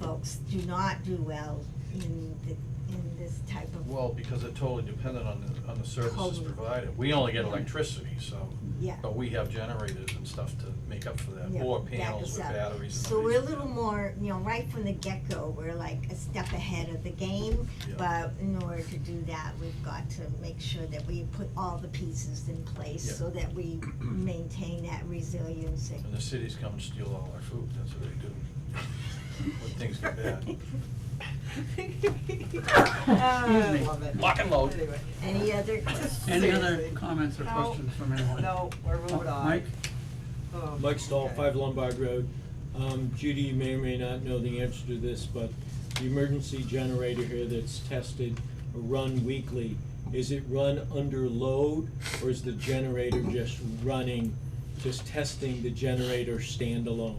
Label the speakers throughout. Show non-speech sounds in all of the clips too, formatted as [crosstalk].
Speaker 1: folks do not do well in the, in this type of,
Speaker 2: Well, because it totally dependent on the, on the services
Speaker 1: Totally.
Speaker 2: provided. We only get electricity, so,
Speaker 1: yeah.
Speaker 2: but we have generators and stuff to make up for that,
Speaker 1: yeah,
Speaker 2: or
Speaker 1: back
Speaker 2: panels
Speaker 1: us
Speaker 2: with
Speaker 1: up.
Speaker 2: batteries and
Speaker 1: So we're a
Speaker 2: everything.
Speaker 1: little more, you know, right from the get-go, we're like a step ahead of the game.
Speaker 2: Yeah.
Speaker 1: But in order to do that, we've got to make sure that we put all the pieces in place
Speaker 2: Yeah.
Speaker 1: so that
Speaker 2: [clears throat]
Speaker 1: we maintain that resiliency.
Speaker 2: And the cities come and steal all our food, that's what they do. When things get bad.
Speaker 3: Uh,
Speaker 4: me.
Speaker 3: love it.
Speaker 2: Lock and load.
Speaker 3: Anyway.
Speaker 1: [laughs] Any other,
Speaker 4: Any other
Speaker 3: Seriously.
Speaker 4: comments or
Speaker 3: No.
Speaker 4: questions from anyone?
Speaker 3: No, we're moving on.
Speaker 4: Mike?
Speaker 3: Oh,
Speaker 5: Mike Stahl,
Speaker 3: okay.
Speaker 5: Five Lombard Road. Um, Judy, you may or may not know the answer to this, but the emergency generator here that's tested, or run weekly, is it run under load, or is the generator just running, just testing the generator standalone?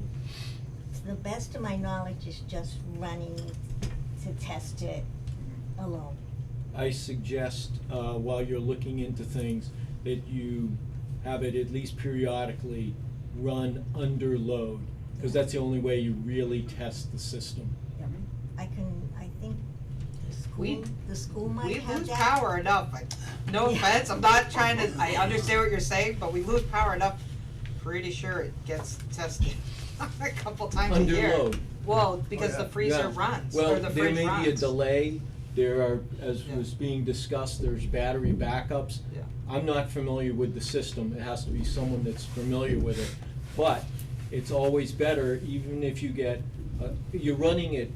Speaker 1: to the best of my knowledge, is just running to test it alone.
Speaker 5: I suggest, uh, while you're looking into things, that you have it at least periodically run under load, because that's the only way you really test the system.
Speaker 1: I can, I think the
Speaker 3: We-
Speaker 1: school, the school might
Speaker 3: We
Speaker 1: have that.
Speaker 3: lose power enough, I- no
Speaker 1: Yeah.
Speaker 3: offense, I'm not trying to, I understand what you're saying, but we lose power enough, pretty sure it gets tested [laughs] a couple times a
Speaker 5: Under
Speaker 3: year.
Speaker 5: load.
Speaker 3: Well, because the
Speaker 2: yeah.
Speaker 3: freezer
Speaker 5: Yeah.
Speaker 3: runs,
Speaker 5: Well,
Speaker 3: or the fridge runs.
Speaker 5: there may be a delay, there are, as
Speaker 3: Yeah.
Speaker 5: was being discussed, there's battery backups.
Speaker 3: Yeah.
Speaker 5: I'm not familiar with the system, it has to be someone that's familiar with it. But it's always better, even if you get, uh, you're running it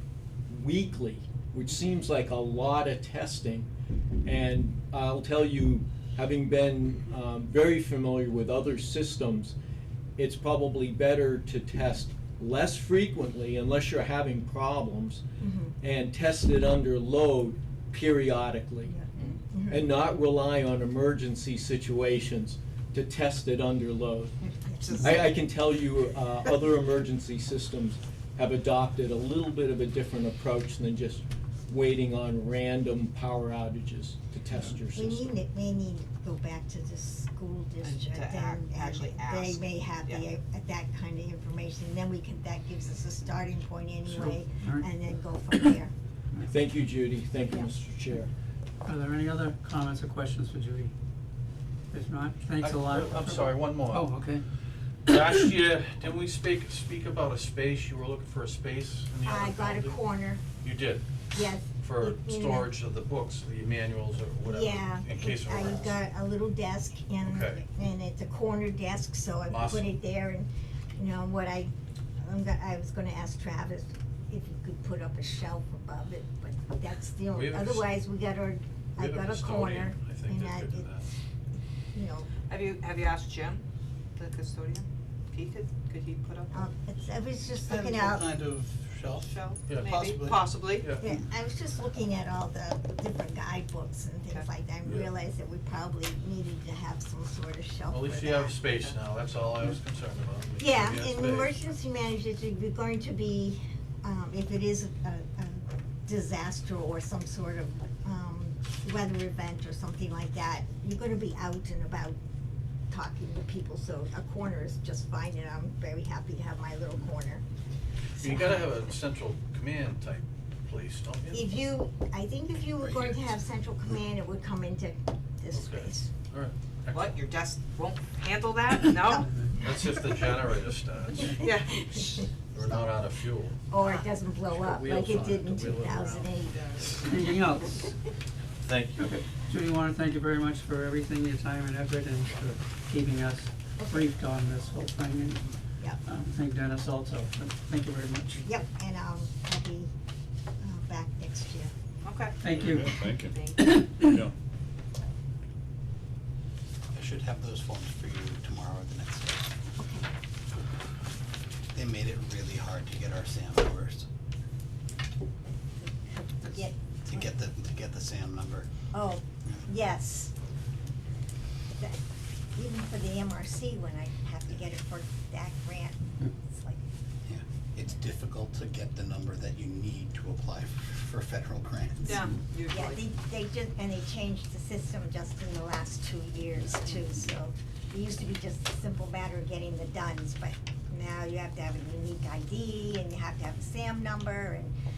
Speaker 5: weekly, which seems like a lot of testing. And I'll tell you, having been um, very familiar with other systems, it's probably better to test less frequently unless you're having problems
Speaker 1: Mhm.
Speaker 5: and test it under load periodically
Speaker 1: Mhm.
Speaker 5: and not rely on emergency situations to test it under load.
Speaker 3: It's just-
Speaker 5: I, I can tell you, uh, other emergency systems have adopted a little bit of a different approach than just waiting on random power outages to test your
Speaker 1: We
Speaker 5: system.
Speaker 1: need, it- we need to go back to the school district
Speaker 3: to act-
Speaker 1: and,
Speaker 3: actually
Speaker 1: and they
Speaker 3: ask,
Speaker 1: may have the,
Speaker 3: yeah.
Speaker 1: uh, that kind of information, then we can, that gives us a starting point anyway,
Speaker 4: All right.
Speaker 1: and then go from there.
Speaker 5: Thank you, Judy, thank you,
Speaker 1: Yeah.
Speaker 5: Mr. Chair.
Speaker 4: Are there any other comments or questions for Judy? If not, thanks a lot.
Speaker 2: I- I'm sorry, one more.
Speaker 4: Oh, okay.
Speaker 2: Last year, didn't we speak, speak about a space, you were looking for a space in the
Speaker 1: I
Speaker 2: other
Speaker 1: got a
Speaker 2: building?
Speaker 1: corner,
Speaker 2: You did,
Speaker 1: yes.
Speaker 2: for
Speaker 1: in- in a-
Speaker 2: storage of the books, the manuals or whatever,
Speaker 1: Yeah,
Speaker 2: in case of.
Speaker 1: I
Speaker 2: emergency.
Speaker 1: got a little desk and,
Speaker 2: Okay.
Speaker 1: and it's a corner desk, so I put
Speaker 2: Awesome.
Speaker 1: it there and, you know, what I, I'm go- I was gonna ask Travis if he could put up a shelf above it, but that's the
Speaker 2: We
Speaker 1: only,
Speaker 2: have a s-
Speaker 1: otherwise we got our,
Speaker 2: We
Speaker 1: I
Speaker 2: have
Speaker 1: got a corner
Speaker 2: custodian, I think
Speaker 1: and
Speaker 2: that
Speaker 1: I,
Speaker 2: could do
Speaker 1: it's,
Speaker 2: that.
Speaker 1: you know,
Speaker 3: Have you, have you asked Jim, the custodian, if he could, could he put up
Speaker 1: um, it's, I was just
Speaker 6: And
Speaker 1: looking
Speaker 6: what
Speaker 1: out,
Speaker 6: kind of
Speaker 3: a
Speaker 6: shelf?
Speaker 3: shelf,
Speaker 2: Yeah.
Speaker 3: maybe,
Speaker 6: Possibly.
Speaker 3: possibly?
Speaker 2: Yeah.
Speaker 1: yeah, I was just looking at all the different guidebooks and things
Speaker 3: Okay.
Speaker 1: like that and
Speaker 2: Yeah.
Speaker 1: realized that we probably needed to have some sort of shelf
Speaker 2: Well,
Speaker 1: for that.
Speaker 2: At least you have space now, that's all I was concerned about. is you
Speaker 1: Yeah,
Speaker 2: had
Speaker 1: and
Speaker 2: space.
Speaker 1: emergency managers, if you're going to be, um, if it is a, a disaster or some sort of, um, weather event or something like that, you're gonna be out and about talking to people, so a corner is just fine, and I'm very happy to have my little corner.
Speaker 2: You gotta have a central command type place, don't you?
Speaker 1: If you, I think if you were going to have central command, it would come into this
Speaker 2: Okay.
Speaker 1: space.
Speaker 2: All right.
Speaker 3: What, your desk won't handle [laughs] that? No?
Speaker 2: That's if the generator starts,
Speaker 3: Yeah.
Speaker 2: we're not out of fuel.
Speaker 1: [laughs] Or it doesn't blow up like
Speaker 2: wheels on
Speaker 1: it did
Speaker 2: it to
Speaker 1: in two
Speaker 2: wheel it around.
Speaker 1: thousand eight. [laughs]
Speaker 4: Anything else?
Speaker 2: Thank you.
Speaker 4: Judy, wanna thank you very much for everything, your time and effort and for keeping us briefed on this whole thing and
Speaker 1: Yep.
Speaker 4: um, thank Dennis also. Thank you very much.
Speaker 1: Yep, and um, I'll be uh, back next year.
Speaker 3: Okay.
Speaker 4: Thank you.
Speaker 7: Thank you.
Speaker 3: Thank
Speaker 7: Yeah.
Speaker 6: I should have those forms for you tomorrow or the next day.
Speaker 1: Okay.
Speaker 6: They made it really hard to get our SAM numbers,
Speaker 1: Yeah,
Speaker 6: to get the, to get the SAM number.
Speaker 1: oh, yes. That- Even for the MRC, when I have to get it for that grant, it's like,
Speaker 6: Yeah, it's difficult to get the number that you need to apply f- for federal grants.
Speaker 3: Yeah, usually.
Speaker 1: yeah, they, they just, and they changed the system just in the last two years too, so. It used to be just a simple matter of getting the duns, but now you have to have a unique ID and you have to have a SAM number and